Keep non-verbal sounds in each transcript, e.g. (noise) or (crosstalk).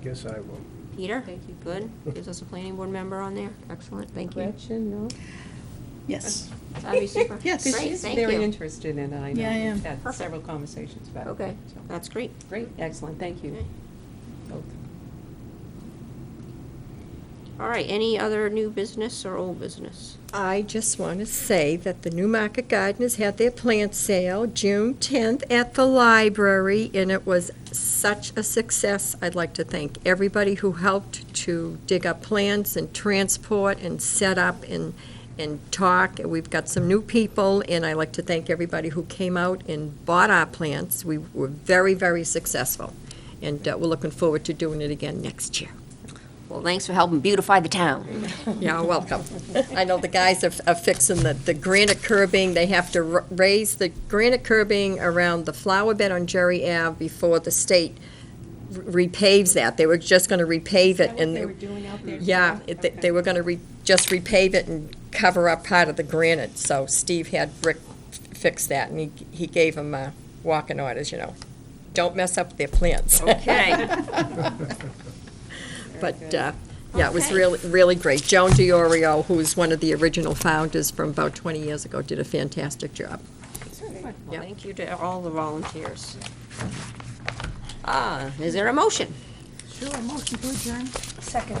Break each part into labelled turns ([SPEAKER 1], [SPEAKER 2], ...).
[SPEAKER 1] guess I will.
[SPEAKER 2] Peter?
[SPEAKER 3] Thank you.
[SPEAKER 2] Good. Gives us a planning board member on there. Excellent, thank you.
[SPEAKER 3] Gretchen, no?
[SPEAKER 4] Yes.
[SPEAKER 2] That'd be
[SPEAKER 3] (laughs)
[SPEAKER 2] super.
[SPEAKER 4] Yes.
[SPEAKER 3] Because
[SPEAKER 2] Great,
[SPEAKER 3] she's
[SPEAKER 2] thank
[SPEAKER 3] very
[SPEAKER 2] you.
[SPEAKER 3] interested in it, I know.
[SPEAKER 4] Yeah, I am.
[SPEAKER 3] We've had
[SPEAKER 2] Perfect.
[SPEAKER 3] several conversations about it.
[SPEAKER 2] Okay,
[SPEAKER 3] so.
[SPEAKER 2] that's great.
[SPEAKER 3] Great, excellent, thank you.
[SPEAKER 2] Okay.
[SPEAKER 3] both.
[SPEAKER 2] All right, any other new business or old business?
[SPEAKER 5] I just want to say that the Newmarket Gardeners had their plant sale June 10th at the library, and it was such a success. I'd like to thank everybody who helped to dig up plants and transport and set up and, and talk. We've got some new people, and I'd like to thank everybody who came out and bought our plants. We were very, very successful, and uh, we're looking forward to doing it again next year.
[SPEAKER 2] Well, thanks for helping beautify the town.
[SPEAKER 5] Yeah, welcome. I know the guys are are fixing the, the granite curbing, they have to ra- raise the granite curbing around the flower bed on Jerry Ave before the state re- repaves that. They were just gonna repave it and. they-
[SPEAKER 3] doing out there?
[SPEAKER 5] Yeah, it- they- they were gonna re, just repave it and cover up part of the granite, so Steve had Rick fix that, and he, he gave him, uh, walking orders, you know, don't mess up their plants. (laughs)
[SPEAKER 2] Okay.
[SPEAKER 5] But, uh, yeah, it was
[SPEAKER 2] Okay.
[SPEAKER 5] really, really great. Joan DiOrio, who was one of the original founders from about 20 years ago, did a fantastic job.
[SPEAKER 2] Well, Thank you to all the volunteers. Ah, is there a motion?
[SPEAKER 4] Sure, motion to adjourn. Second.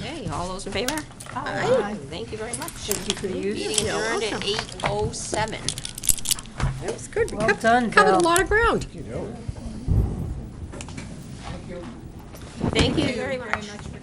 [SPEAKER 2] Okay, all those in favor?
[SPEAKER 4] Aye.
[SPEAKER 2] Thank you very much. Thank you for the use. Meeting adjourned at 8:07.
[SPEAKER 5] That was good. We
[SPEAKER 6] Well
[SPEAKER 5] cov-
[SPEAKER 6] done,
[SPEAKER 5] Covered a
[SPEAKER 6] Bill.
[SPEAKER 5] lot of ground.
[SPEAKER 2] Thank you very much.